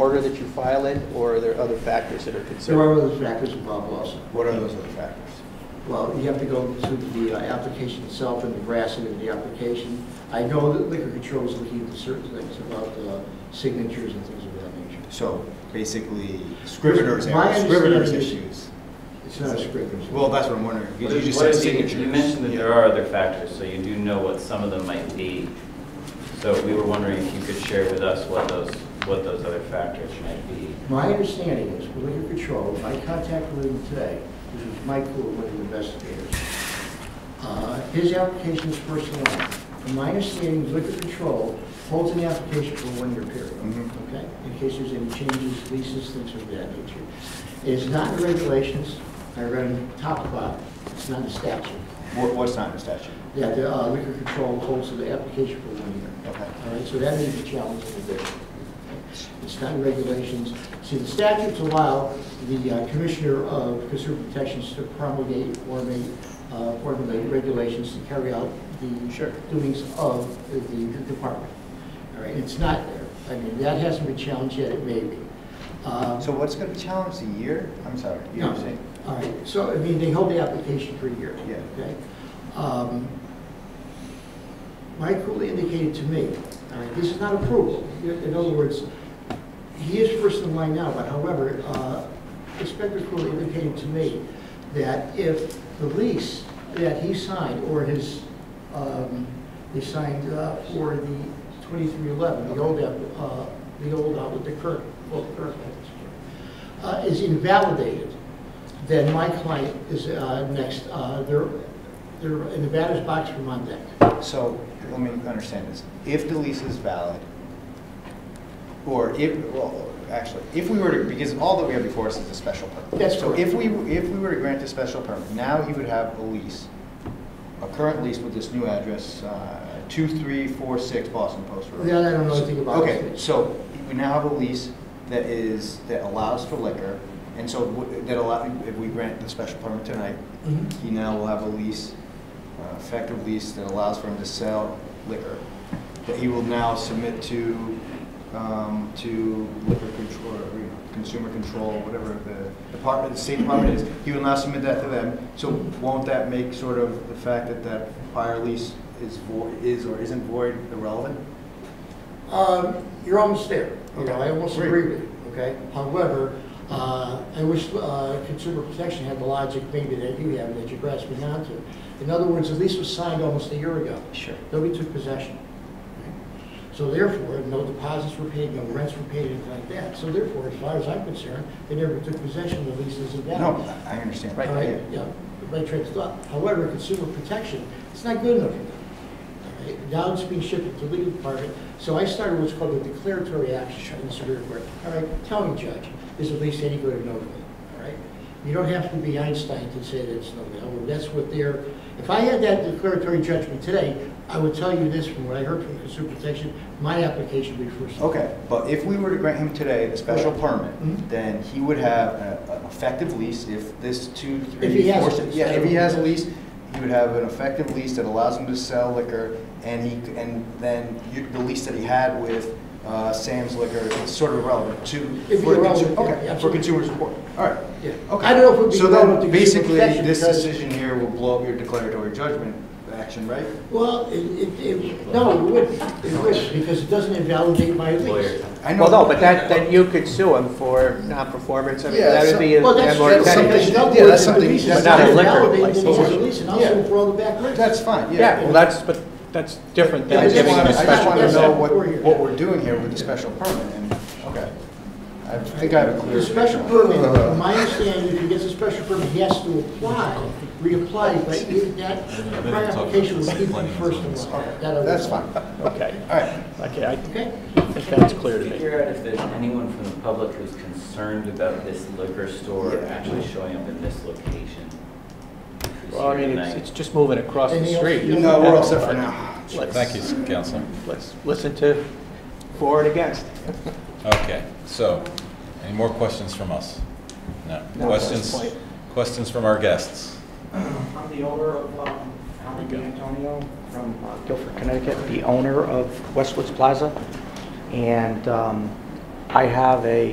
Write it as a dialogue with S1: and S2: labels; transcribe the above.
S1: order that you file it, or are there other factors that are
S2: There are
S1: considered?
S2: other factors involved also.
S1: What are those other factors?
S2: Well, you have to go to the uh, application itself and the veracity of the application. I know that liquor control is looking into certain things about uh, signatures and things of that nature.
S3: So basically, scrivener's
S2: My
S3: errors, scrivener's
S2: understanding
S3: issues.
S2: It's not a scrivener's.
S3: Well, that's what I'm wondering.
S4: What
S3: because You
S4: is-
S3: just said
S4: what is the-
S3: signatures.
S4: You mentioned that
S3: Yeah.
S4: there are other factors, so you do know what some of them might be. So we were wondering if you could share with us what those, what those other factors might be.
S2: My understanding is, with liquor control, my contact with him today, which was Mike Cool, one of the investigators, uh, his application is first in line. From my understanding, liquor control holds an application for a one-year period,
S3: Mhm.
S2: okay? In case there's any changes, leases, things of that nature. It is not in regulations, I read them top to bottom, it's not in statute,
S3: What- What's not in the statute?
S2: that the uh, liquor control holds the application for one year.
S3: Okay.
S2: All right, so that may be challenging a bit. It's not in regulations. See, the statutes allow the uh, Commissioner of Consumer Protections to promulgate or may uh, formulate regulations to carry out the doings of the department. All right, it's not there. I mean, that hasn't been challenged yet, it may be. Uh,
S3: So what's going to be challenged, a year? I'm sorry, you know what I'm saying?
S2: all right, so, I mean, they hold the application for a year.
S3: Yeah.
S2: Okay? Um, Mike Cooley indicated to me, all right, this is not approval. In other words, he is first in line now, but however, uh, Inspector Cooley indicated to me that if the lease that he signed, or his, um, he signed uh, for the 2311, the old, app- uh, the old, uh, with the current, well, the current, uh, is invalidated, then my client is uh, next, uh, they're, they're in the batter's box from on deck.
S3: So let me understand this. If the lease is valid, or if, well, actually, if we were to, because all that we have before us is a special permit.
S2: That's
S3: So
S2: correct.
S3: if we, if we were to grant a special permit, now he would have a lease, a current lease with this new address, uh, 2346 Boston Post Road.
S2: That I don't know anything about.
S3: Okay, so we now have a lease that is, that allows for liquor, and so w- that allow, if we grant the special permit tonight,
S2: Mhm.
S3: he now will have a lease, uh, effective lease that allows for him to sell liquor, that he will now submit to, um, to liquor control, or, you know, consumer control, whatever the department, the state department is, he will now submit that to them. So won't that make sort of the fact that that prior lease is void, is or isn't void irrelevant?
S2: Um, You're almost there. You know,
S3: Okay.
S2: I almost
S3: Great.
S2: agree with you, okay? However, uh, I wish uh, consumer protection had the logic maybe that you have, that you're grasping onto. In other words, the lease was signed almost a year ago.
S3: Sure.
S2: Nobody took possession. So therefore, no deposits were paid, no rents were paid, anything like that. So therefore, as far as I'm concerned, they never took possession, the lease isn't valid.
S3: No, I I understand.
S2: All right,
S3: Yeah.
S2: yeah, right train of thought. However, consumer protection, it's not good enough for them. All right, Now it's being shifted to legal department, so I started what's called a declaratory action in the Superior Court. All right, tell me, Judge, is the lease any good or no good? All right? You don't have to be Einstein to say that it's no good. That's what they're, if I had that declaratory judgment today, I would tell you this from what I heard from consumer protection, my application would be first.
S3: Okay, but if we were to grant him today the special
S2: Mhm.
S3: permit, then he would have a- an effective lease if this two,
S2: If he
S3: three,
S2: has
S3: four,
S2: a
S3: six.
S2: lease.
S3: Yeah, if he has a lease, he would have an effective lease that allows him to sell liquor, and he, c- and then you- the lease that he had with uh, Sam's Liquor is sort of irrelevant to.
S2: It'd be
S3: for consu-
S2: irrelevant, yeah,
S3: Okay, for
S2: absolutely.
S3: consumer support, all right.
S2: Yeah.
S3: Okay.
S2: I don't know if it would be relevant
S3: So
S2: to
S3: then,
S2: consumer
S3: basically,
S2: protection
S3: this
S2: because-
S3: decision here will blow up your declaratory judgment action, right?
S2: Well, it, it- it, no, it wouldn't, it wouldn't, because it doesn't invalidate my
S4: Lawyer.
S2: lease.
S3: I know-
S1: Well, no, but that, then you could sue him for non-performance, I mean,
S3: Yeah,
S1: that
S3: so-
S1: would be. a-
S2: Well, that's,
S1: a more
S2: that's
S1: technical-
S2: something,
S3: Yeah,
S2: no,
S3: that's
S2: it's
S3: something-
S2: released,
S3: that's
S2: it's
S1: not
S2: not
S1: a liquor
S2: invalidated,
S1: license.
S2: it's released, and
S3: Yeah.
S2: also for all the back rent.
S3: That's fine,
S1: Yeah, well, that's, but that's different
S3: I
S1: than
S3: just
S1: giving him
S3: want,
S1: a
S3: I
S1: special
S3: just want to
S1: permit.
S3: know what, what we're doing here with the special permit, and, okay. I think I have a clear.
S2: The special permit, from my understanding, if he gets a special permit, he has to apply, reapply, but even that prior application was given first in
S3: Okay,
S2: line. That I would-
S3: That's fine, all
S1: Okay,
S3: right.
S1: okay, I
S2: Okay?
S1: think that's clear to me.
S4: Figure out if there's anyone from the public who's concerned about this liquor store actually showing up in this location. Who's
S1: Well, I
S4: here
S1: mean, it's,
S4: tonight.
S1: it's just moving across the
S2: Anything else?
S1: street.
S2: You
S3: No, we're all set for now.
S1: Let's-
S5: Thank you, Council.
S1: Let's listen to for and against.
S5: Okay, so, any more questions from us? No.
S1: No, at this
S5: Questions,
S1: point.
S5: questions from our guests?
S6: I'm the owner of um, Alvin
S5: go.
S6: Antonio from uh, Guilford, Connecticut, the owner of Westwoods Plaza. And um,
S1: I have a